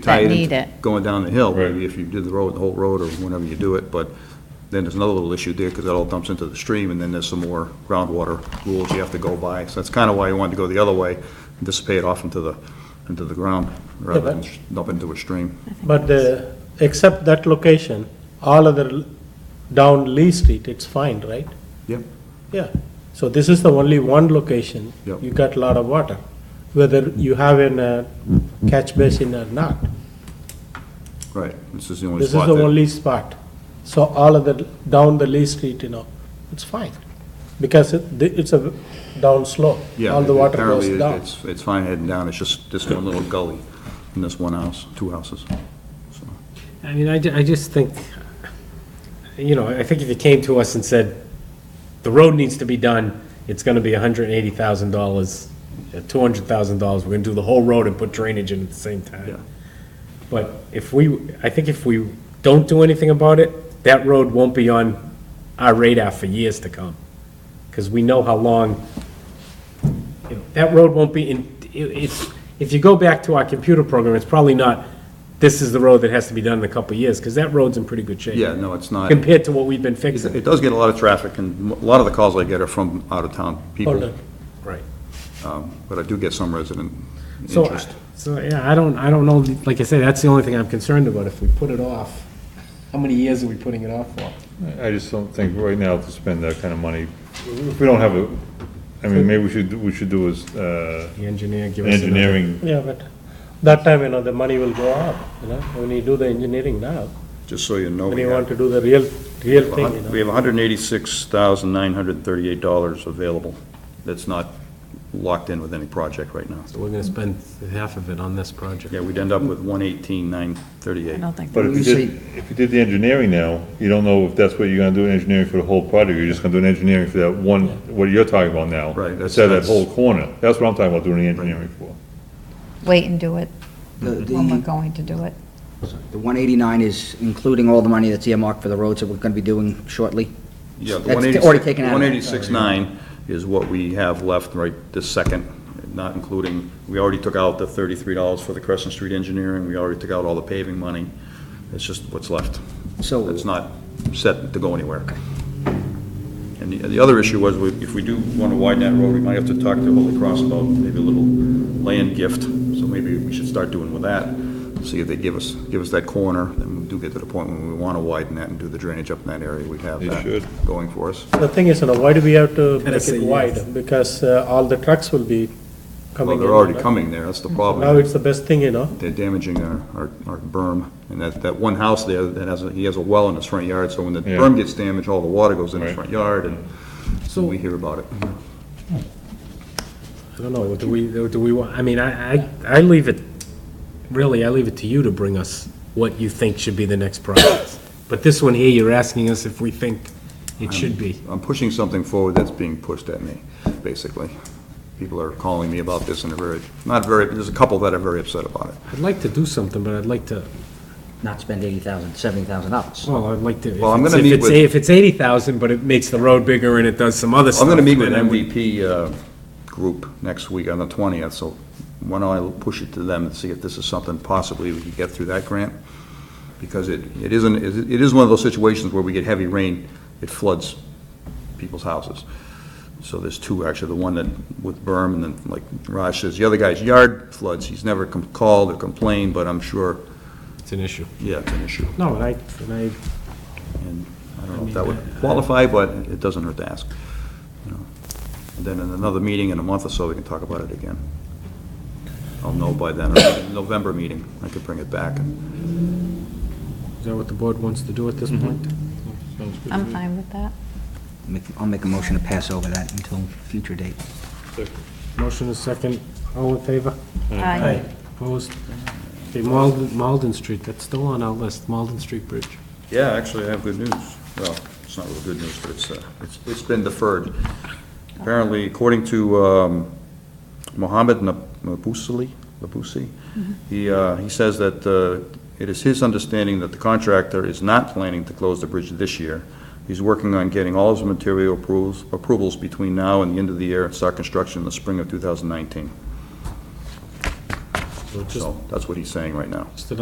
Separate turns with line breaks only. tie
that
it
need
into
it.
Going down the hill,
Right.
maybe if you did the road, the whole road, or whenever you do it, but then there's another little issue there, because that all dumps into the stream, and then there's some more groundwater rules you have to go by, so that's kind of why you wanted to go the other way, and dissipate off into the, into the ground, rather than
but-
dump into a stream.
But uh, except that location, all other l- down Lee Street, it's fine, right?
Yep.
Yeah. So this is the only one location.
Yep.
You got a lot of water, whether you have in a catch basin or not.
Right, this is the only
This is
spot
the
that-
only spot. So all of the, down the Lee Street, you know, it's fine. Because it, the- it's a down slope.
Yeah,
All the water
apparently
goes down.
it's, it's fine heading down, it's just this one little gully, and this one house, two houses. So,
I mean, I, ju- I just think, you know, I think if you came to us and said, the road needs to be done, it's gonna be hundred and eighty thousand dollars, uh, two hundred thousand dollars, we're gonna do the whole road and put drainage in at the same
Yeah.
time. But if we, I think if we don't do anything about it, that road won't be on our radar for years to come. Because we know how long, you know, that road won't be in, it- it's, if you go back to our computer program, it's probably not, this is the road that has to be done in a couple of years, because that road's in pretty good shape.
Yeah, no, it's not.
Compared to what we've been
It
fixing.
it does get a lot of traffic, and a lot of the calls I get are from out-of-town
Hold
people,
on.
Right.
um, but I do get some resident
So, I-
interest.
so, yeah, I don't, I don't know, like I say, that's the only thing I'm concerned about, if we put it off, how many years are we putting it off for?
I just don't think right now to spend that kind of money, if we don't have a, I mean, maybe we should, we should do is, uh,
The engineer, give us another-
engineering,
Yeah, but that time, you know, the money will go up, you know, when you do the engineering now.
Just so you know,
When
we
you want
have
to do the real, real thing, you know.
we have $186,938 available that's not locked in with any project right now.
So we're gonna spend half of it on this project.
Yeah, we'd end up with 118,938.
I don't think.
but if you did, if you did the engineering now, you don't know if that's what you're gonna do, engineering for the whole project, you're just gonna do an engineering for that one, what you're talking about now.
Right, that's-
Instead of that
that's-
whole corner, that's what I'm talking about doing the engineering for.
Wait and do it
The,
when we're
the
going to do it.
Mm-hmm. the 189 is including all the money that's earmarked for the roads that we're going to be doing shortly?
Yeah, the 186
That's already taken out of it.
186.9 is what we have left right this second, not including, we already took out the $33 for the Crescent Street engineering, we already took out all the paving money. It's just what's left.
So-
It's not set to go anywhere. And the, the other issue was, we- if we do want to widen that road, we might have to talk to Holy Cross about maybe a little land gift, so maybe we should start doing with that, see if they give us, give us that corner, and we do get to the point when we want to widen that and do the drainage up in that area, we'd have
They
that
should.
going for us.
The thing is, you know, why do we have to
Gotta
make
say
it
yes.
wide? Because uh, all the trucks will be coming
Well,
in.
they're already
right?
coming there, that's the
Now
problem.
it's the best thing, you know?
They're damaging our, our our berm, and that, that one house there, that has, a- he has a well in his front yard, so when the
Yeah.
berm gets damaged, all the water goes in his
Right.
front yard, and so we hear about it.
I don't know, do we, do we want, I mean, I, I, I leave it, really, I leave it to you to bring us what you think should be the next project. But this one here, you're asking us if we think it should be.
I'm pushing something forward that's being pushed at me, basically. People are calling me about this, and they're very, not very, there's a couple that are very upset about it.
I'd like to do something, but I'd like to,
Not spend 80,000, 70,000 dollars.
well, I'd like to. if
Well, I'm
it's-
gonna
if
meet
it's-
with-
If it's eighty thousand, but it makes the road bigger and it does some other stuff.
I'm gonna meet with
then I would-
MVP uh, group next week on the twentieth, so why don't I push it to them and see if this is something possibly we could get through that grant? Because it, it isn't, it is one of those situations where we get heavy rain, it floods people's houses. So there's two, actually, the one that with berm, and then, like Raj says, the other guy's yard floods, he's never com- called or complained, but I'm sure,
It's an issue.
yeah, it's an issue.
No, and I, and I,
And I don't know if that would qualify, but it doesn't hurt to ask. you know. And Then in another meeting in a month or so, we can talk about it again. I'll know by then, or in the November meeting, I could bring it back. and
is that what the board wants to do at this point?
I'm fine with that.
I'll make a motion to pass over that until future date.
Motion is second, all in favor?
Aye.
Opposed? Okay, Malden, Malden Street, that's still on our list, Malden Street Bridge.
Yeah, actually, I have good news. Well, it's not really good news, but it's, uh, it's- it's been deferred. Apparently, according to um, Mohammed Nab- Nabusali, Nabusi, he, uh, he says that uh, it is his understanding that the contractor is not planning to close the bridge this year. He's working on getting all his material approvals, approvals between now and the end of the year and start construction in the spring of 2019.
So just-
So that's what he's saying right now.
Just an